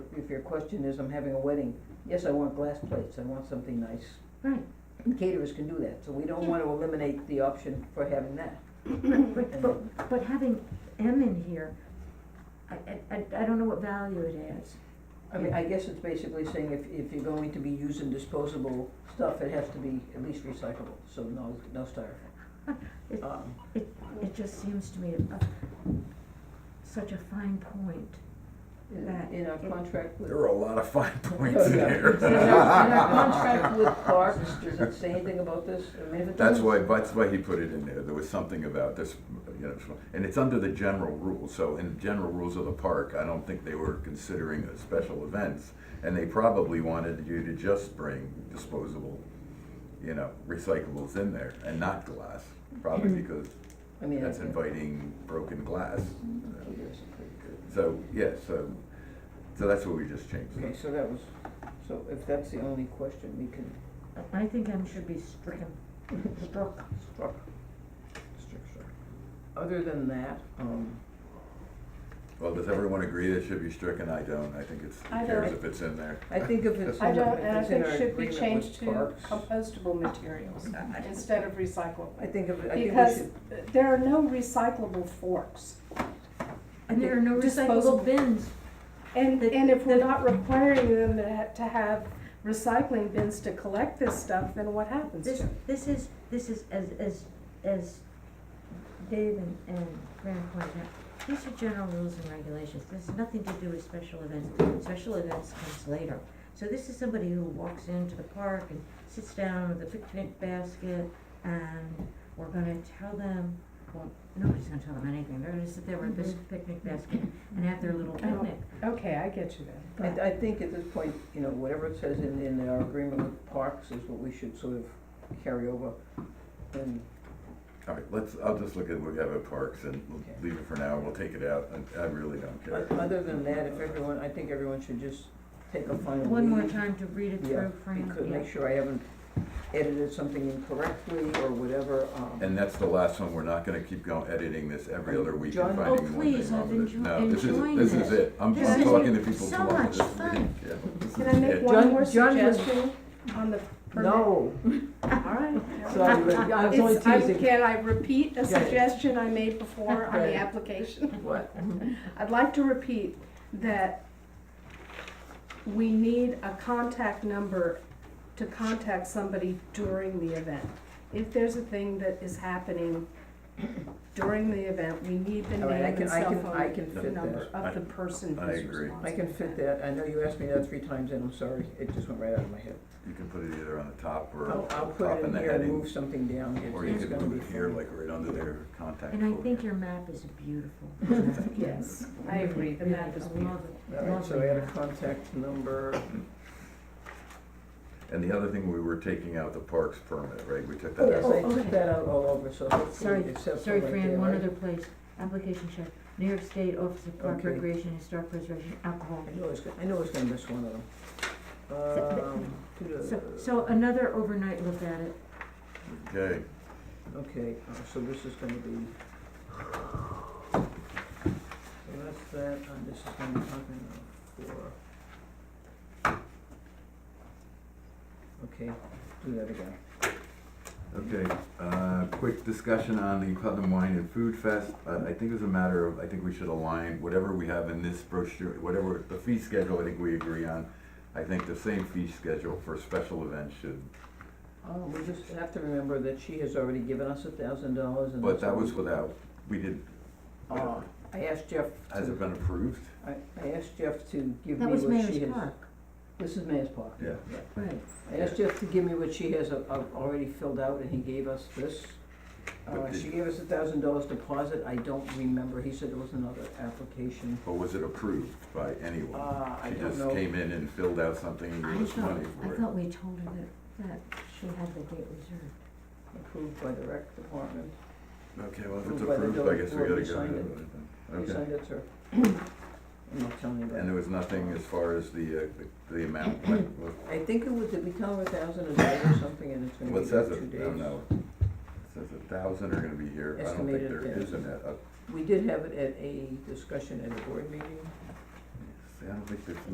if your question is, I'm having a wedding, yes, I want glass plates, I want something nice. Right. And caterers can do that, so we don't Yeah. wanna eliminate the option for having that. But, but, but having M in here, I, I, I- I don't know what value it adds. I mean, I guess it's basically saying if, if you're going to be using disposable stuff, it has to be at least recyclable, so no, no styrofoam. It- Um, It, it just seems to me a, such a fine point. That- In in our contract with. There are a lot of fine points Oh, in yeah. here. In our in our contract with Clark's, does it say anything about this? I mean, if it That's doesn't- why, that's why he put it in there, there was something about this, you know, and it's under the general rules, so in general rules of the park, I don't think they were considering the special events, and they probably wanted you to just bring disposable, you know, recyclables in there, and not glass, probably Hmm. because I mean, that's I- inviting broken glass. Oh, yes, pretty good. So, yeah, so, so that's what we just changed. Okay, so that was, so if that's the only question, we can, I- I think M should be stricken, struck. struck, struck, struck. Other than that, um, Well, does everyone agree that should be stricken? I don't, I think it's, I who cares don't. if it's in there? I think if it's I in, don't, our- and if I it's in think our should be agreement changed with to Clark's, compostable materials instead of recyclable. I think, if- I think we Because should, there are no recyclable forks. And there are no Disposable. recyclable bins. And, The- and if we're the- not requiring them to have, to have recycling bins to collect this stuff, then what happens to This, it? this is, this is, as, as, as Dave and, and Fran pointed out, these are general rules and regulations, this has nothing to do with special events, special events comes later. So this is somebody who walks into the park and sits down with a picnic basket, and we're gonna tell them, well, nobody's gonna tell them anything, they're gonna sit there with this picnic basket and have their little picnic. Okay, I get you then. I, I think at this point, you know, whatever it says in, in our agreement with Clark's is what we should sort of carry over. And All right, let's, I'll just look at what we have at Parks and we'll Okay. leave it for now, we'll take it out, and I really don't care. o- other than that, if everyone, I think everyone should just take a final One more read. time to read it Yeah, through, Fran, Because yeah. make sure I haven't edited something incorrectly or whatever, um. And that's the last one, we're not gonna keep going, editing this every other week John- and oh, finding one please, thing wrong I've with it. enjo- No, this enjoying is, this is this. it, I'm, This I'm is talking to people so tomorrow, much this is fun. it, yeah. this Can is I make it. one John- more John was- suggestion on the permit? No, All right. sorry, but I was only It's- I- teasing. Can I repeat a Yeah. suggestion I made before on Right. the application? What? I'd like to repeat that we need a contact number to contact somebody during the event. If there's a thing that is happening during the event, we need the All right, I name can- and I cell can- I phone can fit number that. of the I- person I who's agree. responsible. I can fit that, I know you asked me that three times and I'm sorry, it just went right out of my head. You can put it either on the top or Oh, I'll, I'll put top it in in the here and heading, move something down, It's- or you it's could gonna be move it here, fun. like right under their contact. And I folder. think your map is beautiful. map. Yes, I agree, the map is Really, I beautiful. love it. All right, so Lovely add a map. contact number, And the other thing, we were taking out the Parks permit, right, we took oh, that out. yes, I okay. took that out all over, so Sorry, hopefully it's set for sorry, right there, Fran, one right? other place, application check, New York State Office of Park Okay. Uh, Recreation, Historic Preservation, alcohol. I know it's, go- I know it's gonna miss one of them. Um, So, so another overnight look at it, Okay, Okay, uh, so this is gonna be. So that's that, and this is gonna be talking uh, for. Okay, do that again. okay, uh, quick discussion on the Putnam Wine and Food Fest, I, I think it's a matter of, I think we should align whatever we have in this brochure, whatever, the fee schedule, I think we agree on. I think the same fee schedule for special events should, Oh. We just have to remember that she has already given us a thousand dollars and. but that's that all was we- without, we did, Uh, I asked Jeff has it to, been approved? I, I asked Jeff to give me that what was she has. Mayor's Park, This is Mayor's Park. Yeah. right, I asked Jeff to give me what she has uh, uh, already filled out, and he gave us this. Uh, But she did- gave us a thousand dollars deposit, I don't remember, he said it was another application. Or was it approved by anyone? Uh, I She don't just know. came in and filled out something and I gave us thought, money I for it. thought we told her that, that she had the date reserved. Approved by the rec department. Okay, well, if it's Approved by the approved, I guess we board, gotta we go. signed ahead it. with it then. You Okay. signed it, sir? I'm not telling you And there that. was nothing as far as the, uh, the- the amount, like, what- I think it was, did we count a thousand a day or something, and it's gonna what be there says two days? it, I don't know. It Says a thousand are gonna be here, I don't think Estimated, there yeah. is an, uh, We did have it at a discussion at a board meeting. see, I don't think there's